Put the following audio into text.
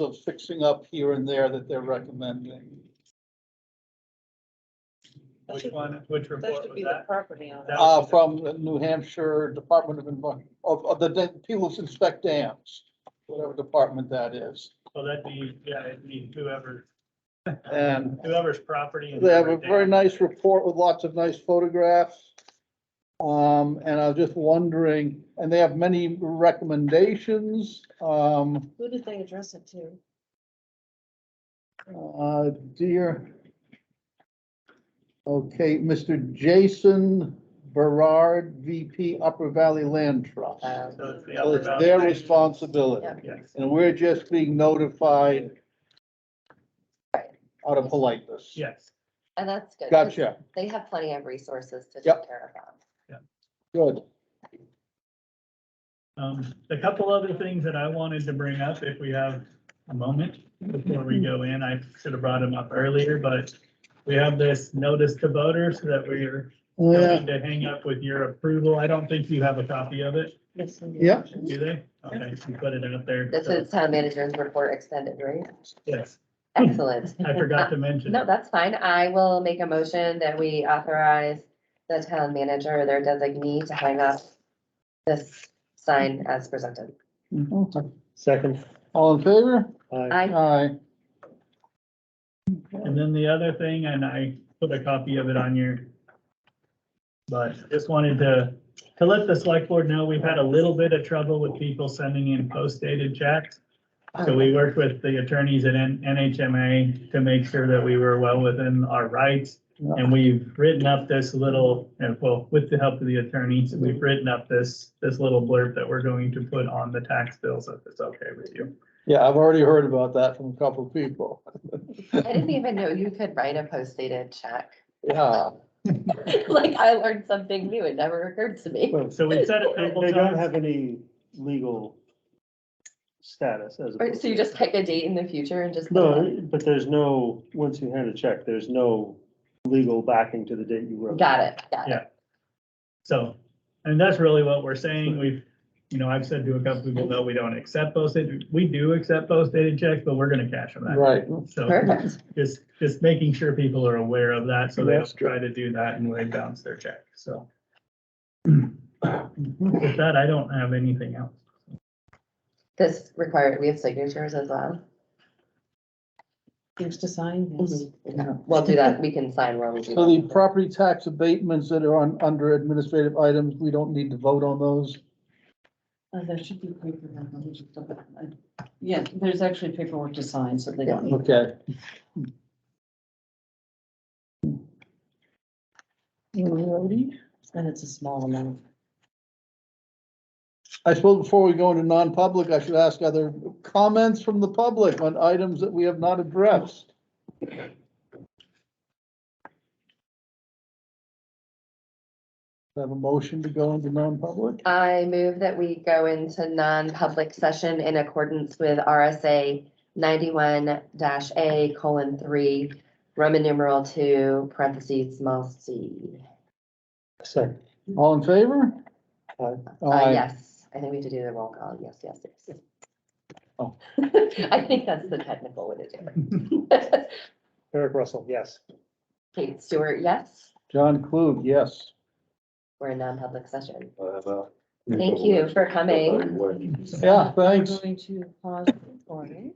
of fixing up here and there that they're recommending. That Which should- one, which That report should was be the that? property owner. That Uh, was- from the New Hampshire Department of Envi- of, of the, da- people who inspect dams, whatever department that is. Well, that'd be, yeah, it'd be whoever, And whoever's property. and they have a whoever very dam. nice report with lots of nice photographs. Um, and I was just wondering, and they have many recommendations, um, Who did they address it to? uh, dear. Okay, Mr. Jason Berard, VP Upper Valley Land Trust. Um, So it's the Well, upper it's their boundary. responsibility, Yeah. Yes. and we're just being notified out of politeness. Yes, And that's good. 'cause Gotcha, They have plenty of resources to Yep. take care of them. good. um, a couple other things that I wanted to bring up, if we have a moment before we go in, I should have brought them up earlier, but we have this notice to voters that we're Yeah, going to hang up with your approval. I don't think you have a copy of it, Yes, and- Yeah. do they? Okay, you put it out there. This so- is town manager's report extended, right? Yes, Excellent. I forgot to mention. No, that's fine. I will make a motion that we authorize the town manager, or their designee, to hang up this sign as presented. Mhm. Second, all in favor? aye. I, Aye. And then the other thing, and I put a copy of it on your, but just wanted to, to let the select board know, we've had a little bit of trouble with people sending in post dated checks. So we worked with the attorneys at N- NHMA to make sure that we were well within our rights. And we've written up this little, and well, with the help of the attorneys, we've written up this, this little blurb that we're going to put on the tax bills, if it's okay with you. Yeah, I've already heard about that from a couple of people, I didn't even know you could write a post-dated check. yeah. Like, I learned something new. It never occurred to me. Well, So we've said it a They couple they don't times. have any legal status as. Or- So you just pick a date in the future and just. No, but there's no, once you hand a check, there's no legal backing to the date you wrote. Got it, got Yeah. it. So, and that's really what we're saying. We've, you know, I've said to a couple people, no, we don't accept posted. We do accept post dated checks, but we're gonna cash them out. Right, So Perfect. just, just making sure people are aware of that so they don't try to do that and they bounce their check, so. With that, I don't have anything else. This required, we have signatures as well. There's to sign. yes. We'll do that. We can sign where we do. so the that. property tax abatements that are on, under administrative items, we don't need to vote on those. Uh, There should be paperwork. I'll just look at it. Yeah, there's actually paperwork to sign, so they don't need. Okay. Alrighty. And it's a small amount. I suppose before we go into non-public, I should ask other comments from the public on items that we have not addressed. Have a motion to go into non-public? I move that we go into non-public session in accordance with RSA ninety-one dash A colon three, Roman numeral two, parentheses, small c. Second, All in favor? Aye. Uh, Aye. yes, I think we need to do the roll call. Yes, yes, yes. Oh. I think that's the technical way to do it. Eric Russell, yes. Kate Stewart, yes, John Klug, yes. we're in non-public session. Thank Thank you for coming. Yeah, thanks. We're Going to pause. recording.